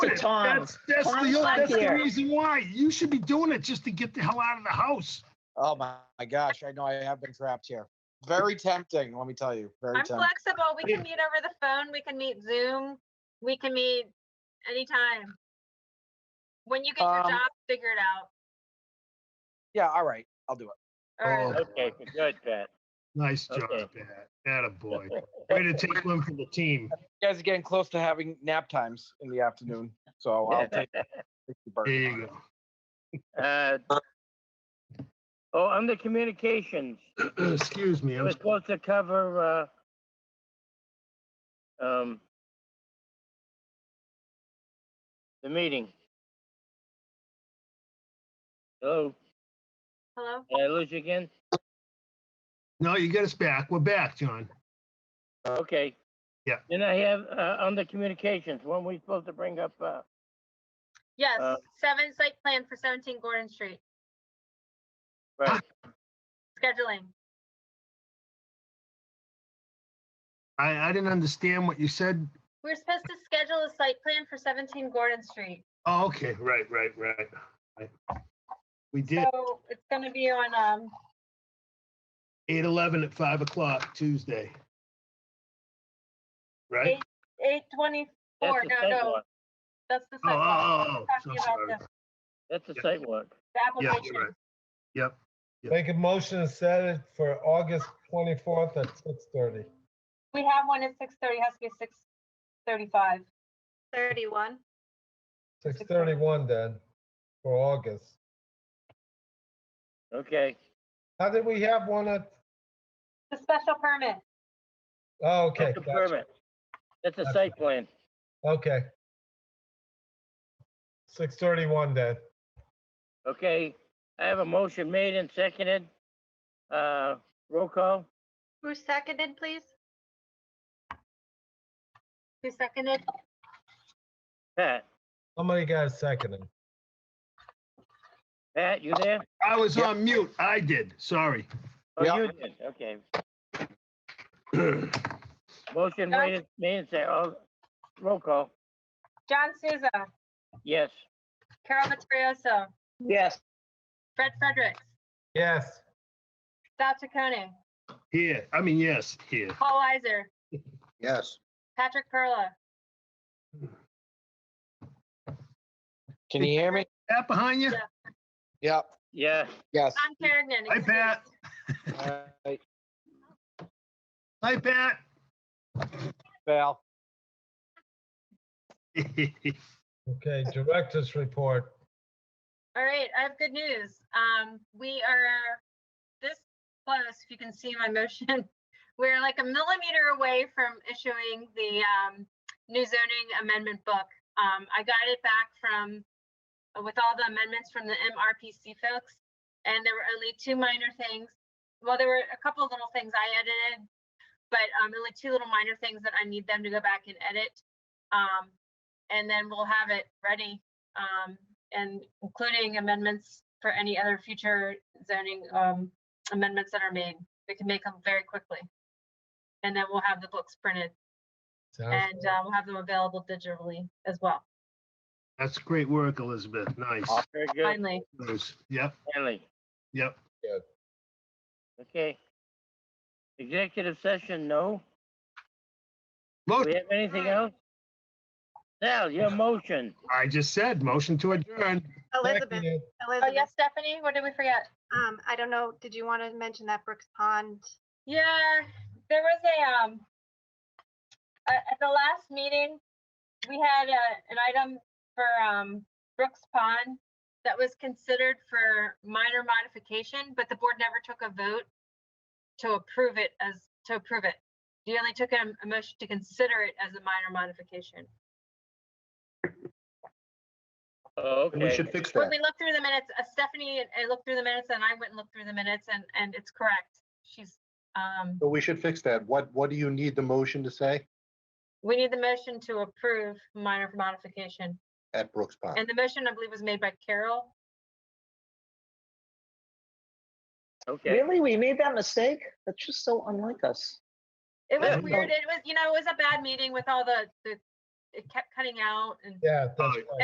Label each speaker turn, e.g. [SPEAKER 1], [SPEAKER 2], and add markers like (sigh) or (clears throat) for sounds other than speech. [SPEAKER 1] it.
[SPEAKER 2] Tom.
[SPEAKER 1] That's, that's,
[SPEAKER 2] Tom's
[SPEAKER 1] the,
[SPEAKER 2] not
[SPEAKER 1] that's the
[SPEAKER 2] here.
[SPEAKER 1] reason why. You should be doing it just to get the hell out of the house.
[SPEAKER 3] Oh my, my gosh, I know I have been trapped here. Very tempting, let me tell you. Very
[SPEAKER 4] I'm
[SPEAKER 3] tempting.
[SPEAKER 4] flexible. We can meet over the phone. We can meet Zoom. We can meet anytime. When you get your
[SPEAKER 3] Um,
[SPEAKER 4] job figured out.
[SPEAKER 3] Yeah, all right, I'll do it.
[SPEAKER 4] Or
[SPEAKER 1] Oh.
[SPEAKER 2] Okay, good, Pat.
[SPEAKER 1] Nice job,
[SPEAKER 2] Okay.
[SPEAKER 1] Pat.
[SPEAKER 2] (laughs)
[SPEAKER 1] Atta boy. Way to take one for the team.
[SPEAKER 3] You guys are getting close to having nap times in the afternoon, so I'll take take the
[SPEAKER 1] There
[SPEAKER 3] bird.
[SPEAKER 1] you go.
[SPEAKER 2] Uh, Oh, under communications,
[SPEAKER 1] (clears throat) Excuse me. I
[SPEAKER 2] we're
[SPEAKER 1] was,
[SPEAKER 2] supposed to cover, uh, um, the meeting. Hello,
[SPEAKER 4] hello.
[SPEAKER 2] did I lose you again?
[SPEAKER 1] no, you get us back. We're back, John.
[SPEAKER 2] Okay.
[SPEAKER 1] Yeah.
[SPEAKER 2] Then I have, uh, under communications, when we supposed to bring up, uh,
[SPEAKER 4] Yes,
[SPEAKER 2] Uh,
[SPEAKER 4] seven site plan for 17 Gordon Street. Ah,
[SPEAKER 2] right,
[SPEAKER 4] Scheduling.
[SPEAKER 1] I, I didn't understand what you said.
[SPEAKER 4] We're supposed to schedule a site plan for 17 Gordon Street.
[SPEAKER 1] Oh, okay. Right, right, right. right. We did
[SPEAKER 4] So it's going to be on, um,
[SPEAKER 1] 8 11 at 5 o'clock Tuesday. Right?
[SPEAKER 4] Eight- 824.
[SPEAKER 2] that's the
[SPEAKER 4] No,
[SPEAKER 2] site
[SPEAKER 4] no,
[SPEAKER 2] walk,
[SPEAKER 4] that's
[SPEAKER 1] Oh,
[SPEAKER 4] the site. walk.
[SPEAKER 1] oh, oh, oh. So
[SPEAKER 4] Talking about
[SPEAKER 1] sorry.
[SPEAKER 4] the-
[SPEAKER 2] that's the
[SPEAKER 1] Yeah.
[SPEAKER 2] site walk.
[SPEAKER 4] The
[SPEAKER 1] Yeah,
[SPEAKER 4] application.
[SPEAKER 1] you're right. Yep.
[SPEAKER 5] Make a motion to set it for August 24th at 6:30.
[SPEAKER 4] We have one at 6:30, has to be 6:35. 31.
[SPEAKER 5] 6:31 then, for August.
[SPEAKER 2] Okay,
[SPEAKER 5] How did we have one at,
[SPEAKER 4] The special permit.
[SPEAKER 5] oh, okay,
[SPEAKER 2] that's a
[SPEAKER 5] gotcha,
[SPEAKER 2] permit. That's a
[SPEAKER 5] Gotcha.
[SPEAKER 2] site plan.
[SPEAKER 5] okay. 6:31 then.
[SPEAKER 2] Okay, I have a motion made and seconded. Uh, roll call,
[SPEAKER 4] Who seconded, please? Who seconded?
[SPEAKER 2] Pat.
[SPEAKER 5] Somebody got a second. it.
[SPEAKER 2] Pat, you there?
[SPEAKER 1] I was on mute. I did. Sorry. (clears throat)
[SPEAKER 2] Oh,
[SPEAKER 3] Yeah.
[SPEAKER 2] you did, okay. Motion
[SPEAKER 4] Yeah.
[SPEAKER 2] made, and- made and seconded, oh, roll call,
[SPEAKER 4] John Souza,
[SPEAKER 2] yes.
[SPEAKER 4] Carol Vittorioso,
[SPEAKER 2] Yes.
[SPEAKER 4] Fred Fredericks,
[SPEAKER 5] Yes,
[SPEAKER 4] Sal Chaconi,
[SPEAKER 1] Here. I mean, yes, here.
[SPEAKER 4] Paul Weiser,
[SPEAKER 3] Yes.
[SPEAKER 4] Patrick Perla.
[SPEAKER 3] Can you hear me?
[SPEAKER 1] Pat behind you?
[SPEAKER 4] Yeah.
[SPEAKER 3] Yep,
[SPEAKER 2] Yeah,
[SPEAKER 3] yes.
[SPEAKER 4] Tom Kerrigan.
[SPEAKER 1] Hi, Pat.
[SPEAKER 4] excused.
[SPEAKER 3] All right,
[SPEAKER 1] Hi, Pat. (laughs)
[SPEAKER 3] Val.
[SPEAKER 5] okay, director's report.
[SPEAKER 4] All right, I have good news. Um, we are this close, if you can see my (laughs) motion. We're like a millimeter away from issuing the um, new zoning amendment book. Um, I got it back from, uh, with all the amendments from the MRPC folks. And there were only two minor things. Well, there were a couple of little things I edited, but um, only two little minor things that I need them to go back and edit. Um, and then we'll have it ready um, and including amendments for any other future zoning um, amendments that are made. We can make them very quickly. And then we'll have the books printed
[SPEAKER 5] Sounds
[SPEAKER 4] and
[SPEAKER 5] good.
[SPEAKER 4] uh, we'll have them available digitally as well,
[SPEAKER 1] That's great work, Elizabeth. Nice.
[SPEAKER 2] very good,
[SPEAKER 4] finally.
[SPEAKER 1] Nice. Yep,
[SPEAKER 2] Finally.
[SPEAKER 1] yep.
[SPEAKER 2] okay. Executive session, no? Do we
[SPEAKER 1] Motion,
[SPEAKER 2] have anything else? Sal, your motion,
[SPEAKER 1] I just said, motion to adjourn.
[SPEAKER 6] Elizabeth,
[SPEAKER 5] Seconded.
[SPEAKER 4] Oh,
[SPEAKER 6] Elizabeth,
[SPEAKER 4] yes, Stephanie, what did we forget?
[SPEAKER 6] um, I don't know, did you want to mention that Brooks Pond?
[SPEAKER 4] Yeah, there was a, um, a- at the last meeting, we had a, an item for, um, Brooks Pond that was considered for minor modification, but the board never took a vote to approve it as, to approve it. You only took a, a motion to consider it as a minor modification.
[SPEAKER 2] oh,
[SPEAKER 7] We
[SPEAKER 2] okay,
[SPEAKER 7] should fix
[SPEAKER 4] When
[SPEAKER 7] that.
[SPEAKER 4] we looked through the minutes, uh, Stephanie, and I looked through the minutes and I went and looked through the minutes and, and it's correct. She's, um,
[SPEAKER 7] But we should fix that. What, what do you need the motion to say
[SPEAKER 4] we need the motion to approve minor modification.
[SPEAKER 7] at Brooks Pond?
[SPEAKER 4] And the motion, I believe, was made by Carol.
[SPEAKER 2] okay.
[SPEAKER 8] Really? We made that mistake? That's just so unlike us.
[SPEAKER 4] It was
[SPEAKER 2] Yeah.
[SPEAKER 4] weird. It was, you know, it was a bad meeting with all the, the
[SPEAKER 9] it kept cutting out and
[SPEAKER 5] Yeah, that's
[SPEAKER 4] Oh,
[SPEAKER 5] right.